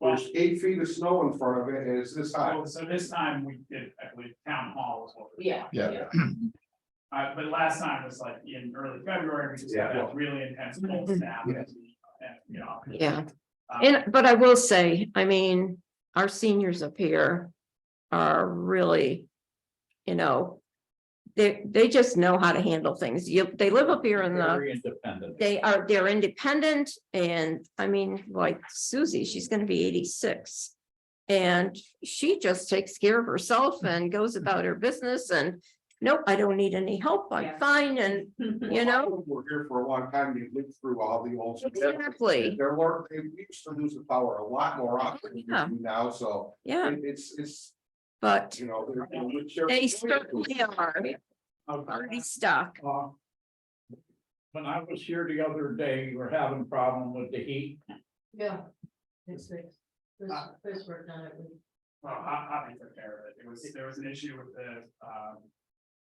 There's eight feet of snow in front of it and it's this high. So so this time we did, I believe, town hall was what. we did. Yeah. Yeah. Uh, but last time was like in early February, we just had a really intense cold snap. and, and, you know, Yeah, um, and, but I will say, I mean, our seniors up here are really, you know. They, they just know how to handle things. You, they live up here in the, Very independent. they are, they're independent and, I mean, like Susie, she's gonna be eighty-six. And she just takes care of herself and goes about her business and, nope, I don't need any help, I'm Yeah. fine, and, you know, We're here for a long time, you lived through all the old. exactly, They're learning, they used to lose the power a lot more often than Yeah. we do now, so yeah, it- it's, it's, but you know. they're- they certainly are uh, Okay. already stuck. Uh, When I was here the other day, we were having a problem with the heat. Yeah. It's fixed. First, first work done, it was- Well, I, I think took care of it. It was, there was an issue with the, um,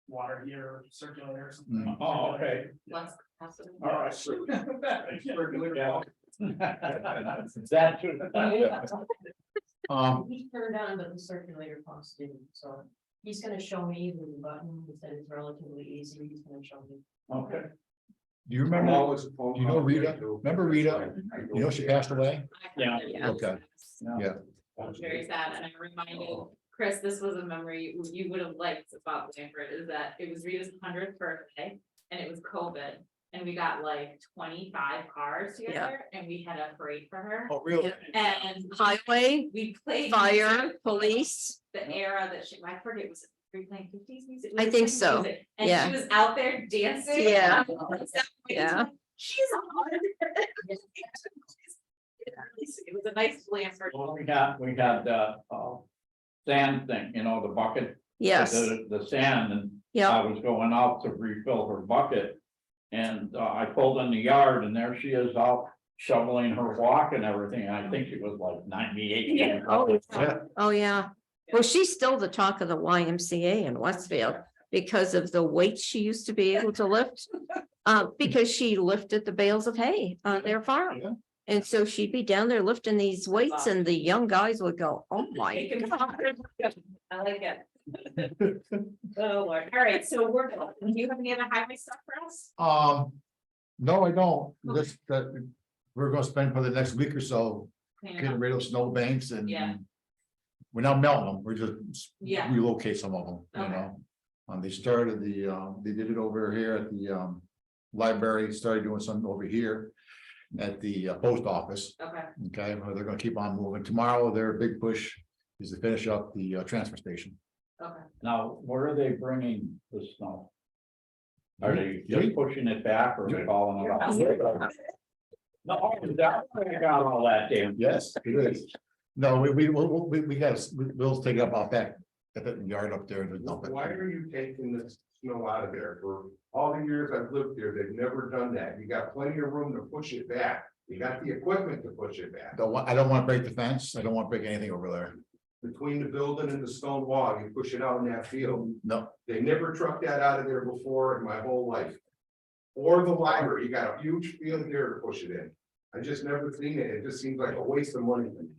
water heater circulator or something. Mm. Oh, okay. once. possible. All right. That should. Um, He turned on, but the circulator pumps didn't, so he's gonna show me the button, he said it's relatively easy, he's gonna show me. okay. Do you I'm remember, always a phone You know call. Rita? Remember Rita? you know, she passed away? Yeah. Yeah. Okay, It was Very sad, and I reminded Chris, this was a memory you would have liked about Blanford, is that it was Rita's hundredth birthday, and it was COVID. And we got like twenty-five cars together, and we had a parade for her, oh, really? and Highway, we played. fire, music, police, The era that she, I forget, was it, were we playing fifties music? I think so, Music. yeah. And she was out there dancing. and Yeah. I was like, Yeah. She's on. It was a nice Blanford. Well, we had, we had, uh, uh, sand thing, you know, the bucket. yes, The, the sand and yeah, I was going out to refill her bucket. And uh, I pulled in the yard and there she is out shoveling her walk and everything. I think she was like ninety-eight. Yeah. Oh, Yeah. oh, yeah. Well, she's still the talk of the YMCA in Westfield because of the weight she used to be able to lift. Uh, because she lifted the bales of hay on their Yeah. farm. And so she'd be down there lifting these weights and the young guys would go, oh my Taken God. I like it. Oh, Lord. All right, so we're, do you have any other highway stuff for us? Um, no, I don't, this, that, we're gonna spend for the next week or so Clean it getting up. rid of snow banks and. Yeah. We're not melting them, we're just Yeah. relocate some of them, you Okay. know? Um, they started the, um, they did it over here at the, um, library, started doing some over here at the uh, post office, Okay, okay, Well, they're gonna keep on moving. Tomorrow, their big push is to finish up the, uh, transfer station. okay. Now, where are they bringing the snow? Are they Yeah. just pushing it back or are they hauling it Yeah. out? No, that's where they got all that damn. Yes, it is. No, we, we, we, we, we gotta, we- we'll take it up out back, at that yard up there. and dump it. Why are you taking the snow out of there? For all the years I've lived here, they've never done that. You got plenty of room to push it back. You got the equipment to push it back. Don't want, I don't wanna break the fence, I don't wanna break anything over there, Between the building and the stone wall, you push it out in that field. no, They never trucked that out of there before in my whole life. Or the library, you got a huge field there to push it in. I just never seen it. It just seems like a waste of money. and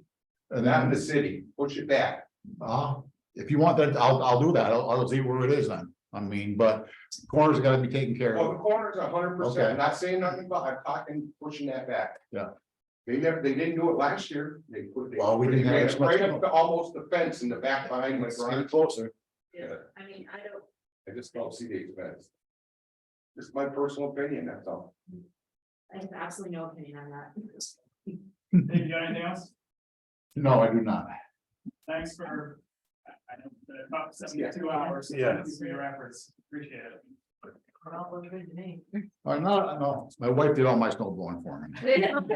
Not in then, the city, push it back. uh, if you want that, I'll, I'll do that, I'll, I'll see where it is then. I mean, but corners gotta be taken care Well, the of, corner's a hundred percent, Okay. I'm not saying nothing about, I'm talking, pushing that back. Yeah. They never, they didn't do it last year, they put. they- Well, we didn't they have ran as it much Right up snow. to almost the fence in the back behind my Let's get garage, closer, Yeah. I mean, I don't, I just don't see the expense. Just my personal opinion, that's all. I have absolutely no opinion on that. Did you got anything else? no, I do not. Thanks for, I, I know, the about Yeah. seventy-two hours. so thank you For your efforts, appreciate it. It all looked good to me. I know, Uh, no, my wife did all my snowblowing for me.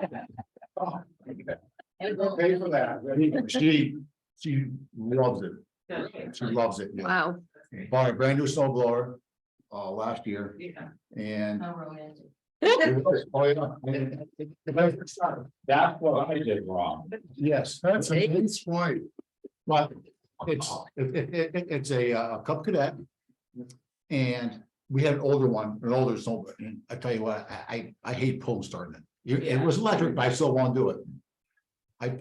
Pay for that. She, she loves it, Good. she loves it, yeah. Wow, bought a brand new snow blower, uh, last year Yeah. and. How romantic. Oh, yeah. And it- it- That's what I did wrong. Yes, that's a nice point. But it's, it, it, it- it- it's a uh, Cub Cadet. And we had an older one, an older snowbird, and I tell you what, I, I, I hate pulling starting it. You- It was electric, but I still want to do it.